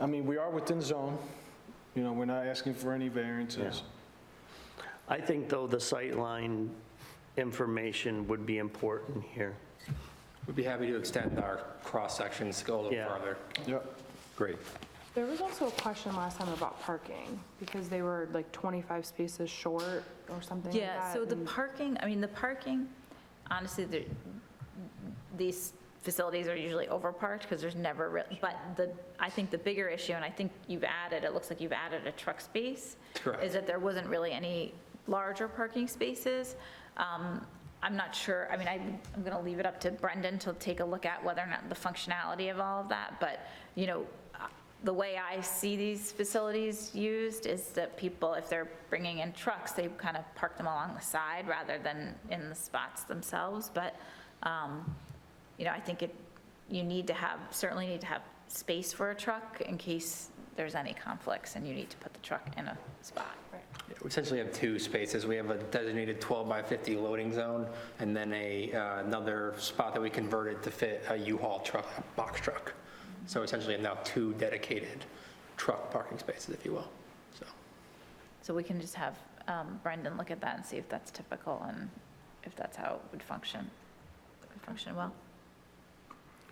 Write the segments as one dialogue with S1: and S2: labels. S1: I mean, we are within zone, you know, we're not asking for any variances.
S2: I think, though, the sightline information would be important here.
S3: We'd be happy to extend our cross sections to go a little
S2: Yeah.
S3: farther.
S1: Yep.
S3: Great.
S4: There was also a question last time about parking, because they were like 25 spaces short or something like
S5: Yeah,
S4: that,
S5: so the
S4: and-
S5: parking, I mean, the parking, honestly, there- these facilities are usually overparked because there's never, real- but the, I think the bigger issue, and I think you've added, it looks like you've added a truck space.
S3: Correct.
S5: Is that there wasn't really any larger parking spaces. Um, I'm not sure, I mean, I, I'm going to leave it up to Brendan to take a look at whether or not the functionality of all of that, but, you know, uh, the way I see these facilities used is that people, if they're bringing in trucks, they kind of park them along the side rather than in the spots themselves, but, um, you know, I think it, you need to have, certainly need to have space for a truck in case there's any conflicts and you need to put the truck in a spot.
S3: We essentially have two spaces. We have a designated 12 by 50 loading zone and then a, uh, another spot that we converted to fit a U-Haul truck, a box truck. So essentially now two dedicated truck parking spaces, if you will. So
S5: So we can just have um, Brendan look at that and see if that's typical and if that's how it would function, would function well.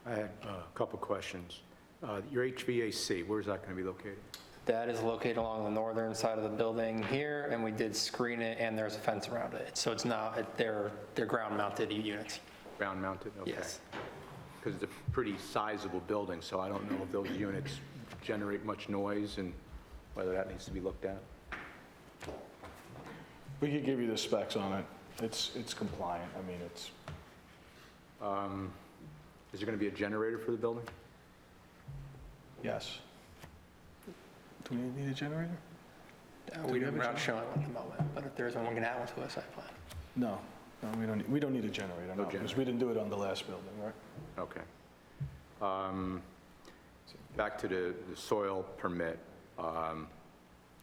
S6: I had a couple questions. Uh, Your HVAC, where's that going to be located?
S3: that is located along the northern side of the building here and we did screen it and there's a fence around it. So it's now, they're, they're ground mounted units.
S6: Ground mounted?
S3: Yes.
S6: Because it's a pretty sizable building, so I don't know if those units generate much noise and whether that needs to be looked at.
S1: We could give you the specs on it. It's, it's compliant, I mean, it's,
S6: Um, Is there going to be a generator for the building?
S1: yes. Do we need a generator?
S3: Uh, We
S1: Do we have
S3: don't-
S1: a
S3: we're not
S1: gen-
S3: showing one at the moment, but if there is one, we're going to add one to the site plan.
S1: No, no, we don't, need- we don't need a generator, no, because we didn't do it on the last building, right?
S6: Okay. Um, Back to the the soil permit, um,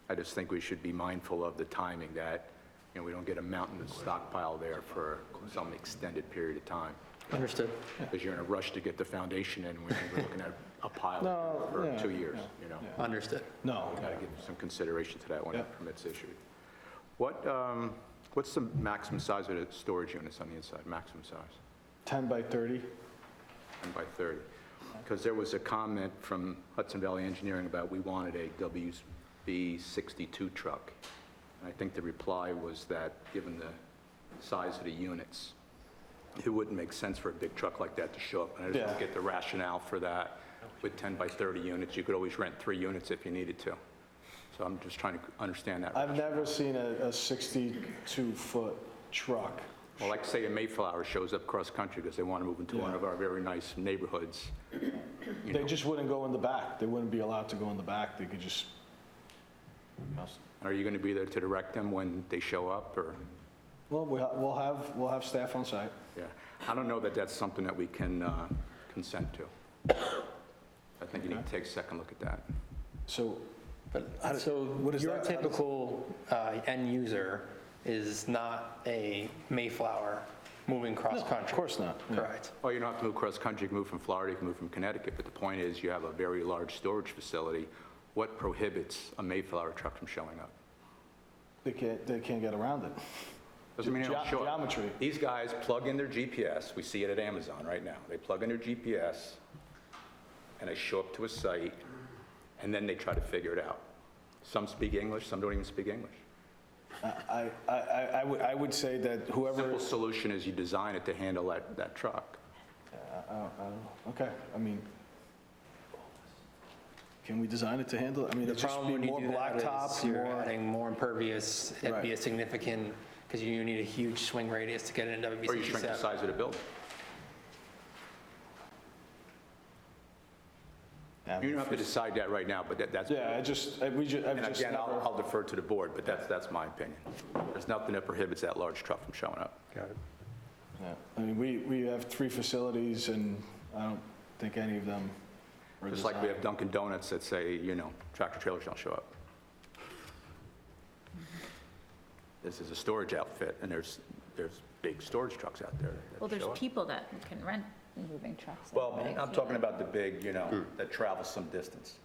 S6: I just think we should be mindful of the timing that, you know, we don't get a mountain of stockpile there for some extended period of time.
S3: Understood.
S6: Because you're in a rush to get the foundation in, when we're looking at a pile
S1: No,
S6: for
S1: yeah,
S6: two years,
S1: yeah,
S6: you know?
S3: Understood.
S1: No,
S6: Got to give some consideration to that when the
S1: Yeah.
S6: permit's issued. What, um, what's the maximum size of the storage units on the inside, maximum size?
S1: 10 by 30,
S6: 10 by 30. Because there was a comment from Hudson Valley Engineering about we wanted a WB 62 truck. And I think the reply was that, given the size of the units, it wouldn't make sense for a big truck like that to show up. And I just don't
S1: Yeah.
S6: get the rationale for that. With 10 by 30 units, you could always rent three units if you needed to. So I'm just trying to understand that.
S1: I've never seen a 62-foot truck.
S6: Well, like say a Mayflower shows up cross-country because they want to move into one
S1: Yeah.
S6: of our very nice neighborhoods.
S1: They just wouldn't go in the back, they wouldn't be allowed to go in the back, they could just,
S6: Are you going to be there to direct them when they show up, or?
S1: well, we ha- we'll have, we'll have staff on site.
S6: Yeah, I don't know that that's something that we can uh, consent to. I think you need to take a second look at that.
S1: So How
S3: But,
S1: do-
S3: so
S1: what is
S3: your
S1: that- how does-
S3: typical uh, end user is not a Mayflower moving cross-country?
S1: Of course not. Yeah.
S3: Correct.
S6: Well, you don't have to move cross-country, you can move from Florida, you can move from Connecticut, but the point is, you have a very large storage facility. What prohibits a Mayflower truck from showing up?
S1: They can't, they can't get around it.
S6: Doesn't mean they don't
S1: Ge-
S6: show up.
S1: geometry.
S6: These guys plug in their GPS, we see it at Amazon right now. They plug in their GPS, and they show up to a site, and then they try to figure it out. Some speak English, some don't even speak English.
S1: I, I, I I would, I would say that whoever,
S6: Simple solution is you design it to handle that, that truck.
S1: uh, okay, I mean, can we design it to handle, it? I mean,
S3: The
S1: it'd just be
S3: problem when you
S1: more
S3: do that
S1: blacktop,
S3: is you're
S1: more,
S3: adding more impervious, it'd be a
S1: Right.
S3: significant, because you need a huge swing radius to get into WB
S6: Or you shrink
S3: 67.
S6: the size of the building. You don't have to decide that right now, but that, that's.
S1: yeah, I just, I- we just, I've
S6: And
S1: just
S6: again, I'll
S1: never,
S6: I'll defer to the board, but that's, that's my opinion. There's nothing that prohibits that large truck from showing up.
S1: yeah. I mean, we, we have three facilities, and I don't think any of them are
S6: Just like we
S1: designed.
S6: have Dunkin' Donuts that say, you know, tractor trailers don't show up. This is a storage outfit, and there's, there's big storage trucks out there that
S5: Well, there's
S6: show up.
S5: people that can rent moving trucks.
S6: Well, I'm talking about the big, you know, that travel some distance.